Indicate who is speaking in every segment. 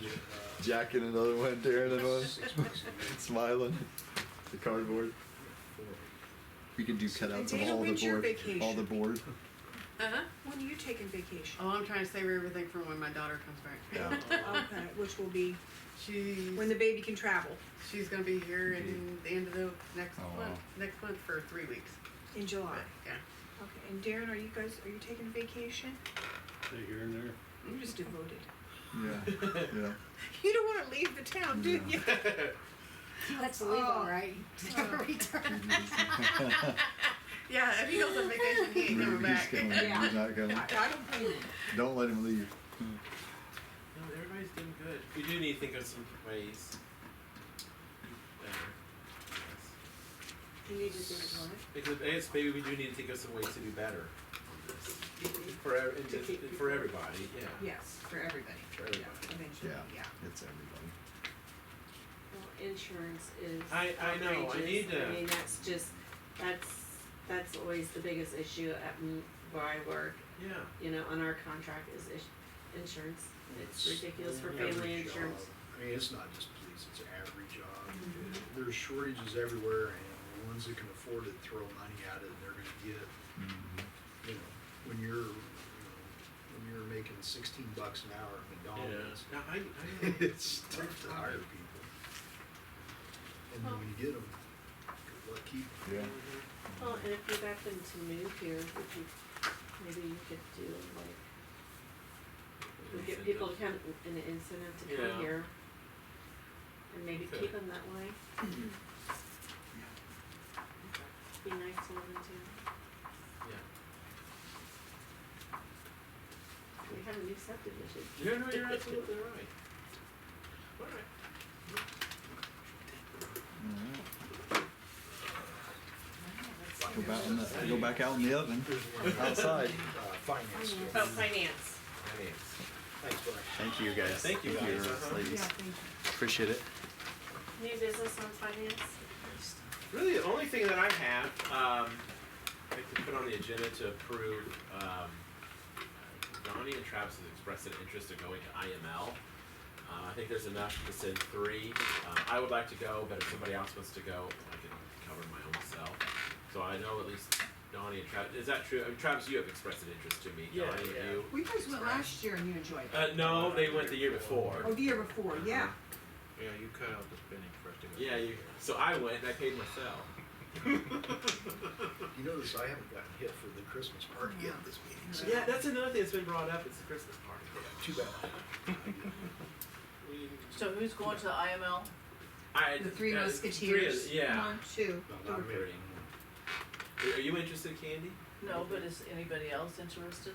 Speaker 1: get uh,
Speaker 2: Jacking another one, tearing another
Speaker 1: six bucks a
Speaker 2: one,
Speaker 1: minute.
Speaker 2: smiling. The cardboard. We could do cutouts of all the
Speaker 3: When's your
Speaker 2: board. All the
Speaker 3: vacation?
Speaker 2: board.
Speaker 3: Uh-huh. When are you taking vacation?
Speaker 4: Oh, I'm trying to save everything for when my daughter comes back.
Speaker 2: Yeah.
Speaker 5: uh,
Speaker 3: Okay, which will be
Speaker 4: She's
Speaker 3: when the baby can travel
Speaker 4: she's gonna be here in the end of the next
Speaker 6: Oh, wow.
Speaker 4: month. Next month for three weeks.
Speaker 3: in July.
Speaker 4: But, yeah.
Speaker 3: Okay, and Darren, are you guys, are you taking vacation?
Speaker 1: They're here and there.
Speaker 3: You're just devoted.
Speaker 2: Yeah. Yeah.
Speaker 3: You don't wanna leave the town, do
Speaker 2: No.
Speaker 3: you?
Speaker 7: Let's
Speaker 3: Oh.
Speaker 7: leave, all right?
Speaker 4: Yeah. If he goes on vacation, he ain't coming
Speaker 2: We're just
Speaker 4: back.
Speaker 2: going.
Speaker 7: Yeah.
Speaker 2: We're not going.
Speaker 3: I I don't blame you.
Speaker 2: Don't let him leave.
Speaker 5: No, everybody's doing good. We do need to think of some ways. Better. Yes.
Speaker 3: You need to think on it.
Speaker 5: Because yes, maybe we do need to think of some ways to do better on this. For ev- and
Speaker 3: To
Speaker 5: just-
Speaker 3: keep people-
Speaker 5: for everybody, yeah.
Speaker 3: Yes, for everybody.
Speaker 5: For everybody.
Speaker 3: Yeah, Eventually,
Speaker 2: Yeah.
Speaker 3: yeah.
Speaker 2: It's everybody.
Speaker 7: Well, insurance is
Speaker 5: I- I know, I
Speaker 7: outrageous.
Speaker 5: need to-
Speaker 7: I mean, that's just, that's, that's always the biggest issue at m- where I work,
Speaker 5: Yeah.
Speaker 7: you know, on our contract is is- insurance. It's ridiculous for
Speaker 1: Every
Speaker 7: family
Speaker 1: job.
Speaker 7: insurance.
Speaker 1: I mean, it's not just police, it's every job.
Speaker 7: Mm-hmm.
Speaker 1: There's shortages everywhere and the ones that can afford it throw money at it and they're gonna get,
Speaker 2: Mm-hmm.
Speaker 1: you know, when you're, you know, when you're making sixteen bucks an hour at
Speaker 5: Yeah.
Speaker 1: McDonald's,
Speaker 5: No, I, I know.
Speaker 1: it's tough to hire people. And then when you get them, good luck keeping 'em.
Speaker 2: Yeah.
Speaker 7: Well, and if you got them to move here, would you, maybe you could do like, we get people to come, an incentive to
Speaker 5: Yeah.
Speaker 7: come here. And maybe
Speaker 5: Okay.
Speaker 7: keep them that way. Be nice to them too.
Speaker 5: Yeah.
Speaker 7: We have a new subdivision.
Speaker 5: Yeah, no, you're absolutely right. All right.
Speaker 2: Go back, in the, go back out in the oven.
Speaker 1: There's one
Speaker 2: Outside.
Speaker 1: Uh, finance.
Speaker 3: Finance.
Speaker 7: Oh,
Speaker 1: stuff.
Speaker 7: finance.
Speaker 5: Finance.
Speaker 1: Thanks, Brian.
Speaker 2: Thank you guys.
Speaker 5: Thank you, guys. Uh-huh.
Speaker 2: ladies.
Speaker 3: Yeah, thank you.
Speaker 2: Appreciate it.
Speaker 7: New business on finance?
Speaker 5: Really, the only thing that I have, um, I'd like to put on the agenda to approve, um, Donnie and Travis has expressed an interest in going to IML. Uh, I think there's enough to send three. Uh, I would like to go, but if somebody else wants to go, I can cover my own self. So I know at least Donnie and Travis, is that true? I mean, Travis, you have expressed an interest to me.
Speaker 6: Yeah,
Speaker 5: Donnie,
Speaker 6: yeah.
Speaker 5: you?
Speaker 3: We guys went last year and you enjoyed it.
Speaker 5: Uh, no, they went the year before.
Speaker 3: Oh, the year before, yeah.
Speaker 6: Yeah, you cut out the spinning for us to go.
Speaker 5: Yeah, you, so I went and I paid myself.
Speaker 1: You notice I haven't gotten hit for the Christmas party yet this meeting, so
Speaker 5: Yeah, that's another thing that's been brought up, it's the Christmas party.
Speaker 1: too bad.
Speaker 5: We-
Speaker 8: So who's going to the IML?
Speaker 5: I,
Speaker 3: The Three
Speaker 5: uh,
Speaker 3: Musketeers.
Speaker 5: Three, yeah.
Speaker 3: One, two.
Speaker 1: No, not
Speaker 3: three.
Speaker 1: me.
Speaker 5: Are you interested, Candy?
Speaker 8: No, but is anybody else interested?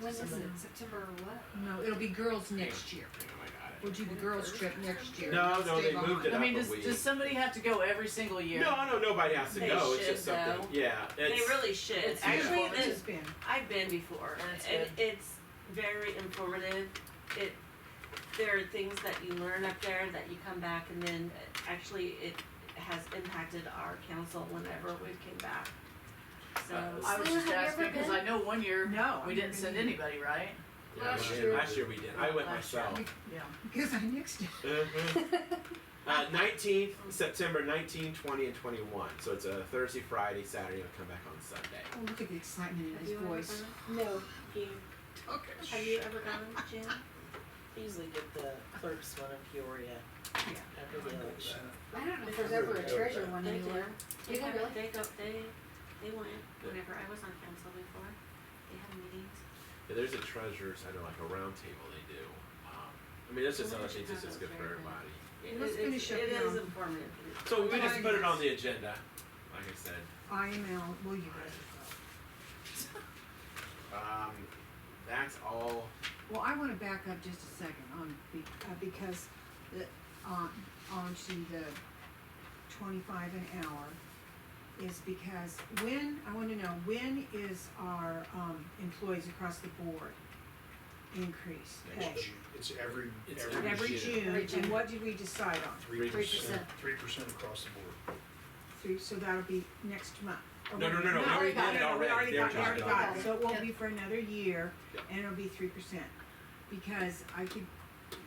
Speaker 9: When is it? September or what?
Speaker 3: No, it'll be girls next year.
Speaker 5: Oh my god.
Speaker 3: We'll do the girls trip next year.
Speaker 5: No, no,
Speaker 3: Stay
Speaker 5: they moved
Speaker 3: behind.
Speaker 5: it
Speaker 8: I
Speaker 5: up
Speaker 8: mean,
Speaker 5: a
Speaker 8: does,
Speaker 5: week.
Speaker 8: does somebody have to go every single year?
Speaker 5: No, no, nobody has to
Speaker 7: They
Speaker 5: go. It's
Speaker 7: should,
Speaker 5: just something.
Speaker 7: though.
Speaker 5: Yeah.
Speaker 7: They
Speaker 5: it's-
Speaker 7: really should.
Speaker 8: it's
Speaker 7: Actually,
Speaker 8: uniform.
Speaker 3: This has
Speaker 7: this,
Speaker 3: been.
Speaker 7: I've been before,
Speaker 8: And it's
Speaker 7: and it's very informative. It, there are things that you learn up there that you come back and then uh, actually it has impacted our council whenever we came back. So.
Speaker 4: Uh,
Speaker 8: I was
Speaker 9: Still,
Speaker 8: just
Speaker 9: have you
Speaker 8: asking
Speaker 9: ever
Speaker 8: because
Speaker 9: been?
Speaker 8: I know one year
Speaker 3: No,
Speaker 8: we
Speaker 3: I've
Speaker 8: didn't
Speaker 3: never
Speaker 8: send
Speaker 3: been.
Speaker 8: anybody, right?
Speaker 5: Yeah,
Speaker 9: Last
Speaker 5: we-
Speaker 9: year.
Speaker 5: Last year we did. I went
Speaker 8: Last
Speaker 5: myself.
Speaker 8: Yeah.
Speaker 3: Because I nixed it.
Speaker 5: Mhm. Uh, 19th, September 19, 20, and 21. So it's a Thursday, Friday, Saturday, and come back on Sunday.
Speaker 3: Oh, look at the excitement in his voice.
Speaker 7: No, you,
Speaker 3: Okay.
Speaker 7: have you ever gone, Jim?
Speaker 8: Usually get the clerks one in Peoria
Speaker 3: Yeah.
Speaker 8: after the election.
Speaker 9: I don't know if there's ever a treasure one
Speaker 7: They
Speaker 9: anywhere. Is
Speaker 7: do. They
Speaker 9: there
Speaker 7: go,
Speaker 9: really?
Speaker 7: they go, they, they went, whenever I was on council before, they had meetings.
Speaker 5: Yeah, there's a treasures, I know, like a round table they do. Um, I mean, that's just
Speaker 7: Well,
Speaker 5: another
Speaker 7: they
Speaker 5: thing
Speaker 7: should
Speaker 5: that's
Speaker 7: have
Speaker 5: just good
Speaker 7: those
Speaker 5: for
Speaker 7: there, then.
Speaker 5: everybody.
Speaker 7: It-
Speaker 3: Let's
Speaker 7: it- it's-
Speaker 3: finish up
Speaker 7: It is
Speaker 3: now.
Speaker 7: informative.
Speaker 5: So we just put it on the agenda, like I said.
Speaker 3: IML, will you guys go?
Speaker 5: Um, that's all.
Speaker 3: Well, I want to back up just a second on, be- uh, because the, on, onto the twenty-five an hour is because when, I want to know, when is our, um, employees across the board increase?
Speaker 1: Next June. It's every,
Speaker 5: It's
Speaker 1: every
Speaker 3: Every
Speaker 5: June.
Speaker 3: June,
Speaker 9: Every June.
Speaker 3: and what did we decide on?
Speaker 1: three percent,
Speaker 9: 3%.
Speaker 1: three percent across the board.
Speaker 3: Three, so that'll be next month. or
Speaker 5: No, no, no, no, we
Speaker 3: whatever.
Speaker 5: already
Speaker 9: got
Speaker 5: did it
Speaker 3: No, no, we
Speaker 5: already.
Speaker 3: already
Speaker 5: They were
Speaker 3: got, we already
Speaker 5: talking
Speaker 3: got
Speaker 5: about
Speaker 3: it,
Speaker 5: it.
Speaker 3: so it won't be for another year,
Speaker 5: Yeah.
Speaker 3: and it'll be three percent. Because I could